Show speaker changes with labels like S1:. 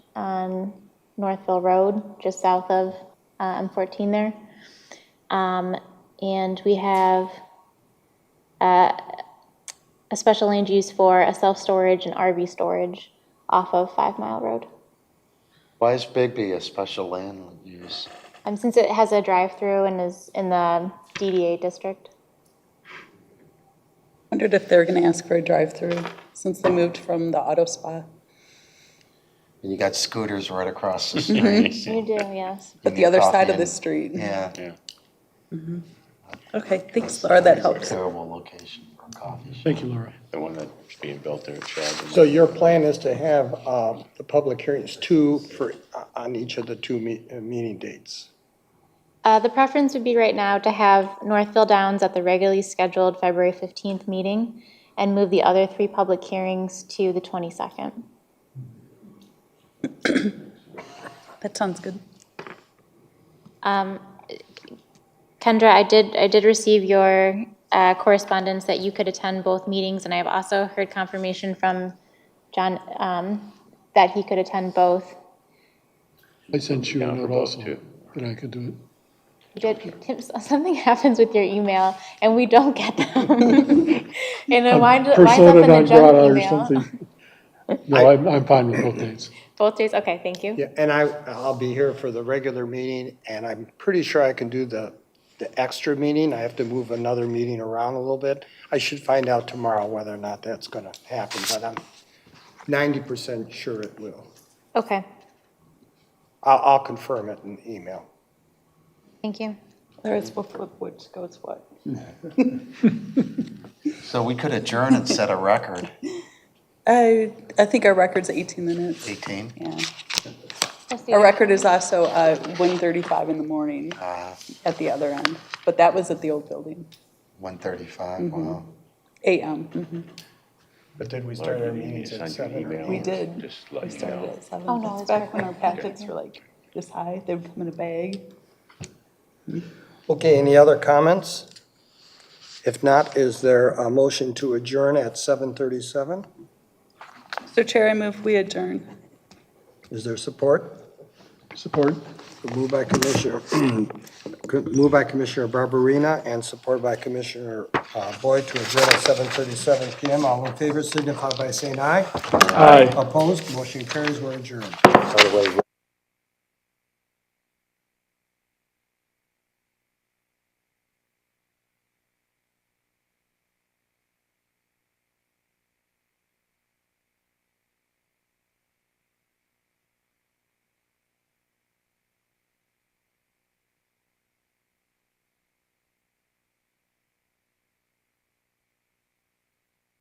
S1: on Northville Road, just south of uh, M14 there. Um, And we have uh, a special land use for a self-storage and RV storage off of Five Mile Road.
S2: Why is Bigby a special land use?
S1: Um, Since it has a drive-through and is in the DDA district.
S3: Wondered if they were going to ask for a drive-through since they moved from the auto spa.
S2: And you got scooters right across the street.
S1: You do, yes.
S3: But the other side of the street.
S2: Yeah.
S3: Okay, thanks Laura, that
S2: It's a
S3: helps.
S2: Terrible location for a coffee shop.
S4: Thank you, Laura.
S5: The one that's being built there at Shadwell.
S6: So your plan is to have um, the public hearings two for, uh, on each of the two me- uh, meeting dates?
S1: Uh, The preference would be right now to have Northville Downs at the regularly scheduled February 15th meeting and move the other three public hearings to the 22nd.
S3: That sounds good.
S1: Um, Kendra, I did, I did receive your uh, correspondence that you could attend both meetings, and I have also heard confirmation from John um, that he could attend both.
S4: I sent you a
S5: Down for
S4: note
S5: both,
S4: also
S5: too.
S4: that I could do it.
S1: Did- Tim, Something happens with your email, and we don't get them. And it winds winds up in
S4: Persona
S1: the
S4: non grata
S1: junk
S4: or
S1: email.
S4: something. No, I'm, I'm fine with both dates.
S1: Both days, okay, thank you.
S6: Yeah, and I, I'll be here for the regular meeting, and I'm pretty sure I can do the, the extra meeting. I have to move another meeting around a little bit. I should find out tomorrow whether or not that's going to happen, but I'm 90% sure it will.
S1: Okay,
S6: I'll, I'll confirm it in email.
S1: thank you.
S3: Laura, it's what, what, which goes what?
S2: So we could adjourn and set a record,
S3: I, I think our record's 18 minutes.
S2: 18.
S3: Yeah.
S1: Trustee-
S3: Our record is also uh, 1:35 in the morning
S2: Uh,
S3: at the other end, but that was at the old building,
S2: 135,
S3: Mm-hmm.
S2: wow.
S3: AM. Mhm.
S6: But did we start our meetings at seven? or-
S3: We did.
S5: Just
S3: We
S5: let you
S3: started
S5: know.
S3: at 7.
S1: Oh, no,
S3: That's
S1: it's
S3: back when our
S1: perfect.
S3: packets were like this high, they would come in a bag.
S6: Okay, any other comments? If not, is there a motion to adjourn at 7:37?
S3: So Chair, I move we adjourn.
S6: Is there support?
S4: Support?
S6: Moved by Commissioner, moved by Commissioner Barberina and support by Commissioner uh, Boyd to adjourn at 7:37 PM. All in favor signify by saying aye.
S4: Aye.
S6: Opposed, motion carries, we're adjourned.
S2: By the way,